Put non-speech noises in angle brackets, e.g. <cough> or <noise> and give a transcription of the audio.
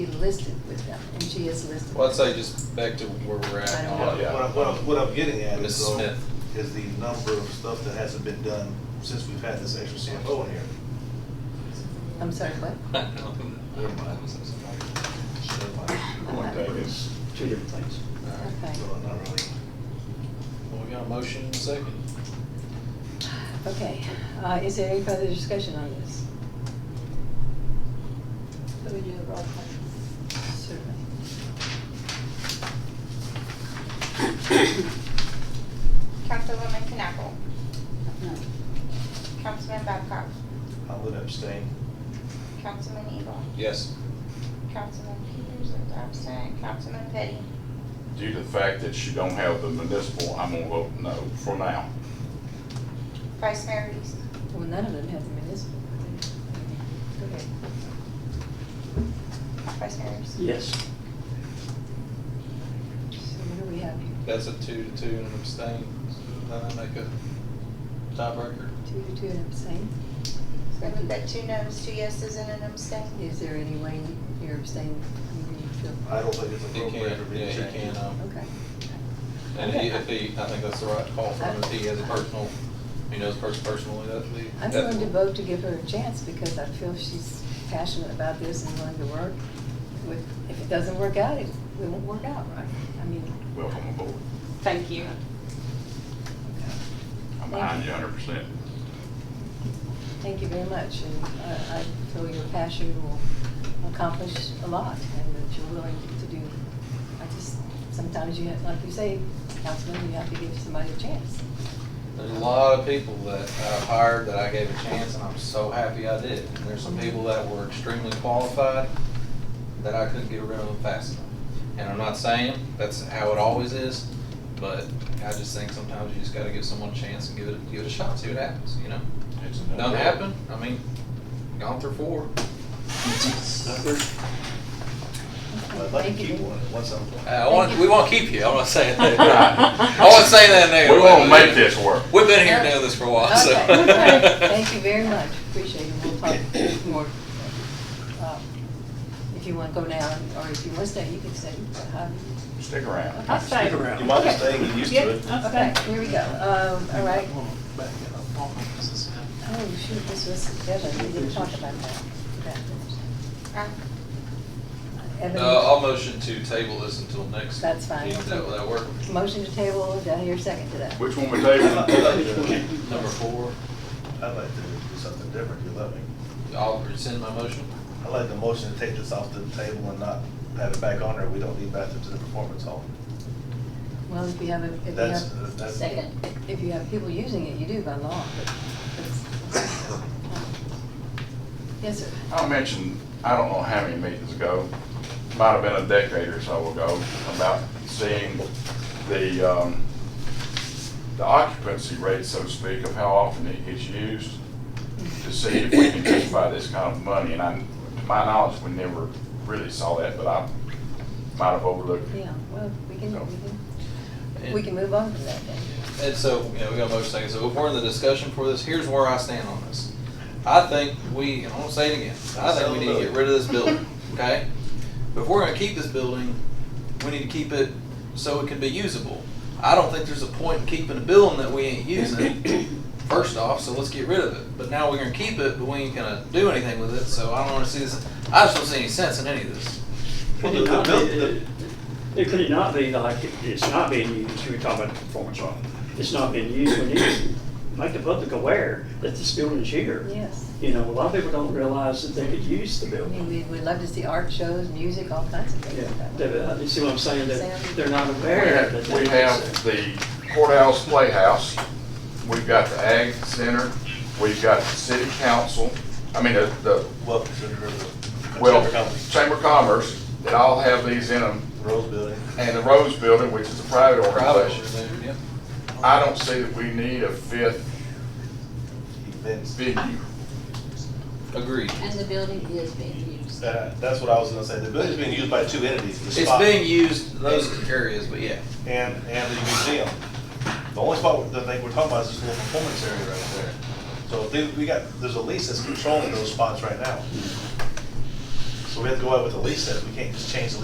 be listed with them, and she is listed. Well, I'd say just back to where we're I at. don't on- know. What I'm, what I'm, what I'm getting at is, Mrs. though, Smith. is the number of stuff that hasn't been done since we've had this extra CFO in here. I'm sorry, what? <laughs> I don't know. Never mind. Never mind. One thing is two different things. Okay. So, not really. Well, we got a motion and a second. Okay, uh, is there any further discussion on this? So we do the roll call. Certainly. Councilwoman Knappel, No. Councilman Babcock, I would abstain. Councilman Evil, Yes. Councilman Peters is absent, Councilman Petty, Due to the fact that you don't have the municipal, I'm gonna vote no for now. Vice Mayor Reese. Well, none of them have the municipal. Go ahead. Vice Mayor Reese. Yes. So what do we have here? That's a two to two and an abstain. So Then I make a tiebreaker. Two to two and abstain? So we've got two noes, two yeses, and an abstain. Is there any way you're abstaining? You can feel- I don't think it's He appropriate can, for me yeah, to he change. can, um, Okay. and he, if he, I think that's the right call for him. If he has a personal, he knows pers- personally, that's the. I'm that's- going to vote to give her a chance because I feel she's passionate about this and willing to work with, if it doesn't work out, it it won't work out, right? I mean, Welcome aboard. Thank you. I'm behind you hundred percent. thank you very much, and I I feel your passion will accomplish a lot, and that you're willing to do, I just, sometimes you have, like you say, Councilman, you have to give somebody a chance. There's a lot of people that I've hired that I gave a chance and I'm so happy I did. And There's some people that were extremely qualified that I couldn't get rid of fast enough. And I'm not saying that's how it always is, but I just think sometimes you just gotta give someone a chance and give it, give it a shot, see what happens, you know? Don't happen, I mean, gone through four. Uh, I'd like to Thank you. keep one, once I'm Uh, I done. want, we won't keep you, I'm not <laughs> <laughs> saying that. I won't say that now. We won't make this work. We've been here doing this for a while, so. Okay, <laughs> okay. Thank you very much, appreciate it, we'll talk more. uh, If you want to go now, or if you want to stay, you can stay. Um, Stick around. I'll stay. Stick around. You might as well stay, get used to it. Yeah, I'll Okay, stay. here we go, um, all right. Back it up. Oh, shoot, this was Evan, we didn't talk about that. That was- Uh, Evan, Uh, I'll motion to table this until next. That's fine. meeting. Does that, will that work? Motion to table, do I hear a second to that? Which one we I'd like- I'd table? like to- Number four, I'd like to do something different, you let me. I'll rescind my motion. I'd like the motion to take this off the table and not have it back on there. We don't need bathrooms in the performance hall. Well, if you have, a- if you That's, have, that's. Second. if you have people using it, you do by law, but it's. Yes, sir. I mentioned, I don't know how many meetings ago, might have been a decade or so ago, about seeing the, um, the occupancy rate, so to speak, of how often it gets used, to see if we can justify this kind of money, and I, to my knowledge, we never really saw that, but I might have overlooked it. Yeah, well, we can, we can, we can move on from that then. And so, you know, we got a motion second, so if we're in the discussion for this, here's where I stand on this. I think we, and I'm gonna say it again, I think we need to get rid of this building, okay? But if we're gonna keep this building, we need to keep it so it can be usable. I don't think there's a point in keeping a building that we ain't using, first off, so let's get rid of it. But now we're gonna keep it, but we ain't gonna do anything with it, so I don't wanna see this, I just don't see any sense in any of this. Well, Could the- it not the- the- be, it- could it not be like, it- it's not being used, you were talking about the performance art, it's not being used, we need to make the public aware that this building's here. Yes. You know, a lot of people don't realize that they could use the I mean, building. we, we'd love to see art shows, music, all kinds of Yeah, things. like that. they- uh, you see what I'm saying, that they're not We aware that. have, they- we have the courthouse playhouse, we've got the ag center, we've got the city council, I mean, the, the Well, consider the. Well, Chamber Company. Chamber of Commerce, they all have these in them, Rose Building. and the Rose Building, which is a private Probably, organization. yeah. I don't see that we need a fifth events. venue. Agreed. And the building is being used. Uh, That's what I was gonna say. The building's being used by two entities, the It's spa being used in those areas, but yeah. and, and the museum. The only spot that they we're talking about is this little performance area right there. So if they, we got, there's a lease that's controlling those spots right now. So we have to go out with a lease that, we can't just change the